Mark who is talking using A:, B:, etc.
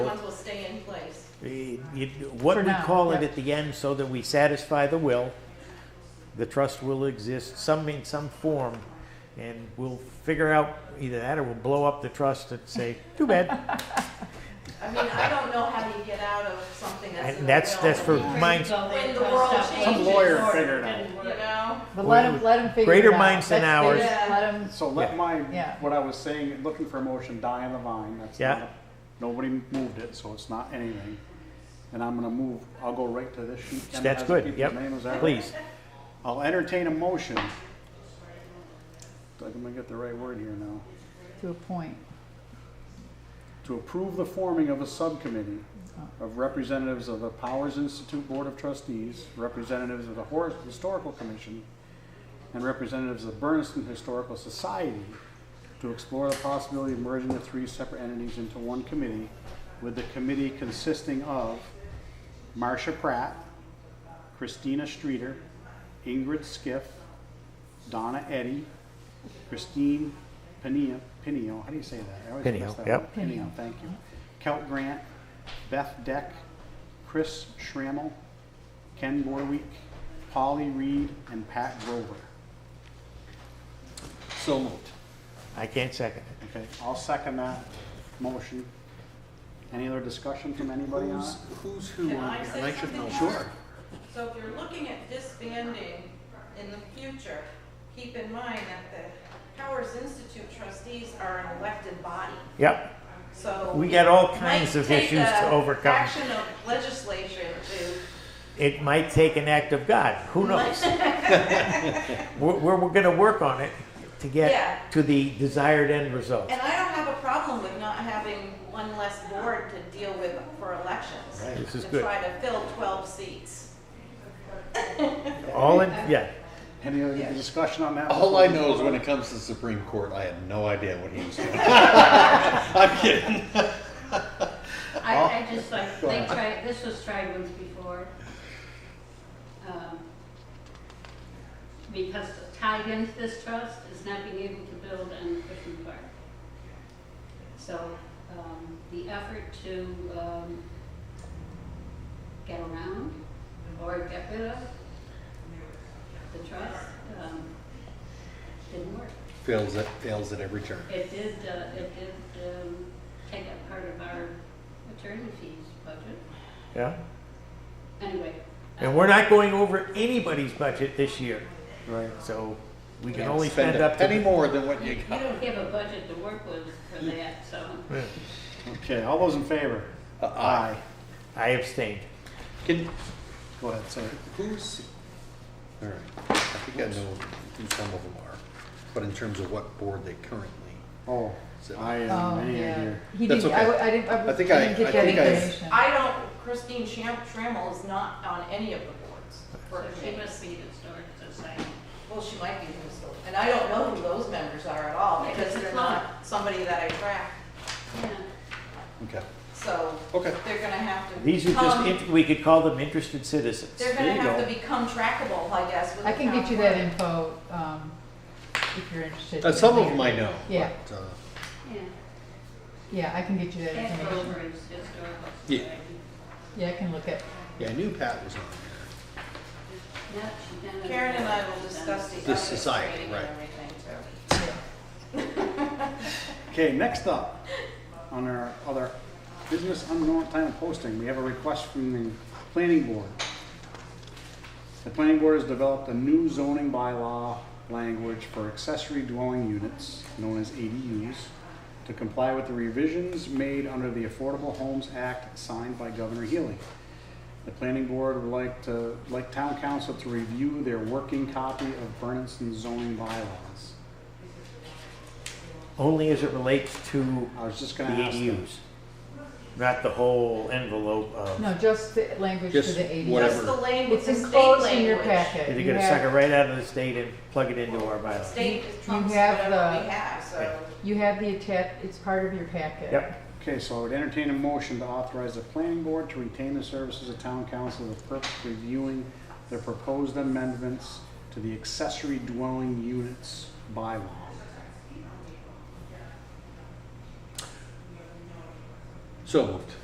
A: stay in place.
B: Eh, you- What
C: For
B: we
C: now,
B: call it
C: yep.
B: at the end, so that we satisfy the will, the trust will exist, some in some form, and we'll figure out either that or we'll blow up the trust and say, too bad.
A: I mean, I don't know how you get out of something that's. in
B: And
A: the
B: that's,
A: will.
B: that's for mine,
A: When the world
D: Some
A: changes.
D: lawyer figured it
A: You
D: out.
A: know,
C: But let them, let them figure it out.
B: Greater minds than
C: Let's figure
A: ours.
C: it- Let them,
D: So let
B: Yeah.
D: my,
C: Yeah.
D: what I was saying, looking for a motion, die on the vine, that's
B: Yeah.
D: not, nobody moved it, so it's not anything. And I'm gonna move, I'll go right to this sheet. Ken
B: that's
D: has the
B: good,
D: people's
B: yep,
D: names, all right?
B: please.
D: I'll entertain a motion. I'm gonna get the right word here now.
C: to a point.
D: To approve the forming of a subcommittee of representatives of the Powers Institute Board of Trustees, representatives of the Hor- Historical Commission, and representatives of the Berniston Historical Society to explore the possibility of merging the three separate entities into one committee, with the committee consisting of Marcia Pratt, Christina Streeter, Ingrid Skiff, Donna Eddy, Christine Pinio, Pinio, how do you say that? I always
B: Pinio,
D: mess that
B: yep.
D: up. Pinio, thank you. Kelt Grant, Beth Deck, Chris Schrammel, Ken Borweek, Polly Reed, and Pat Grover. So moved.
B: I can't second it.
D: Okay, I'll second that motion. Any other discussion from anybody on
E: Who's,
D: it?
E: who's who
A: can
E: on
A: I
E: here?
A: say
E: I should know.
A: something?
D: Sure.
A: So if you're looking at disbanding in the future, keep in mind that the Powers Institute trustees are an elected body.
B: Yep,
A: So.
B: We got all
A: it
B: kinds
A: might
B: of
A: take
B: issues
A: a
B: to overcome.
A: Action of legislation to,
B: it might take an act of God, who knows? We're, we're, we're gonna work on it to
A: Yeah.
B: get to the desired end result.
A: and I don't have a problem with not having one less board to deal with for elections.
B: This is
A: To
B: good.
A: try to fill 12 seats.
B: All in, yeah,
D: Any other
A: Yes.
D: discussion on that?
E: All I
D: before we-
E: know is when it comes to the Supreme Court, I have no idea what he was doing. I'm kidding.
F: I, I just like,
E: Oh. Go
F: they
E: ahead.
F: tried, this was tried once before. um, Because tied into this trust is not being able to build on Cushman Park. So, um, the effort to, um, get around or get rid of the trust, um, didn't work.
E: Fails at, fails at every turn.
F: It did, uh, it did, um, take up part of our attorney fees budget.
B: yeah.
F: Anyway.
B: And we're not going over anybody's budget this year,
D: Right.
B: so we can
E: Can't
B: only spend
E: a
B: up
E: penny
B: to.
E: more than what
F: You
E: you
F: you
E: got.
F: don't have a budget to work with for that, so.
B: Yeah.
D: Okay, all those in favor?
E: Uh, aye.
B: I abstained.
E: Can,
D: Go ahead, sir.
E: who's, all right, I think I know who some of them are, but in terms of what board they currently,
D: Oh,
E: So-
D: I am
C: Oh,
D: man
C: yeah.
D: here.
C: He
E: That's
C: didn't, I,
E: okay.
C: I didn't, I
E: I think I-
C: didn't
E: I
C: get that
E: think I-
C: information.
A: I don't, Christine Sham, Trammell is not on any of the boards.
F: So
A: for
F: she
A: me.
F: must be in historic society.
A: Well, she might be in this board. And I don't know who those members are at all because they're not somebody that I track.
F: Yeah.
E: okay,
A: So
E: okay.
A: they're gonna have to
B: These are just,
A: become,
B: int- we could call them interested citizens.
A: they're
D: there
A: gonna
D: you
A: have
D: go.
A: to become trackable, I guess, with
C: I
A: the
C: can get
A: town
C: you that
A: clerk.
C: info, um, if you're interested.
E: Uh, some of them I know.
C: Yeah.
E: but, uh,
F: Yeah.
C: Yeah, I can get you that
F: Pat
C: information.
F: Grover is historical
E: Yeah.
F: society.
C: Yeah, I can look at,
E: Yeah, I knew Pat was on there.
F: No, she done it.
A: Karen and I will discuss the
E: The
A: ethics
E: society,
A: training
E: right.
A: and everything too.
D: Okay, next up, on our other business unknown time of posting, we have a request from the planning board. The planning board has developed a new zoning bylaw language for accessory dwelling units, known as ADUs, to comply with the revisions made under the Affordable Homes Act signed by Governor Healy. The planning board would like to, like town council to review their working copy of Berniston zoning bylaws.
B: Only as it relates to
D: I was just
B: the
D: gonna ask them.
B: ADUs. Not the whole envelope of,
C: no, just the language for
E: Just
C: the eighties.
E: whatever.
A: Just the language,
C: It's
A: the state
C: enclosed in your
A: language.
C: packet.
B: they're
C: You
B: gonna
C: have-
B: suck it right out of the state and plug it into our bylaws.
A: State
C: You- you
A: trumps
C: have
A: whatever
C: the-
A: we have,
B: Yeah.
A: so.
C: You have the attach, it's part of your packet.
B: Yep,
D: Okay, so I would entertain a motion to authorize the planning board to retain the services of town council for the purpose of reviewing the proposed amendments to the accessory dwelling units bylaw.
E: So moved.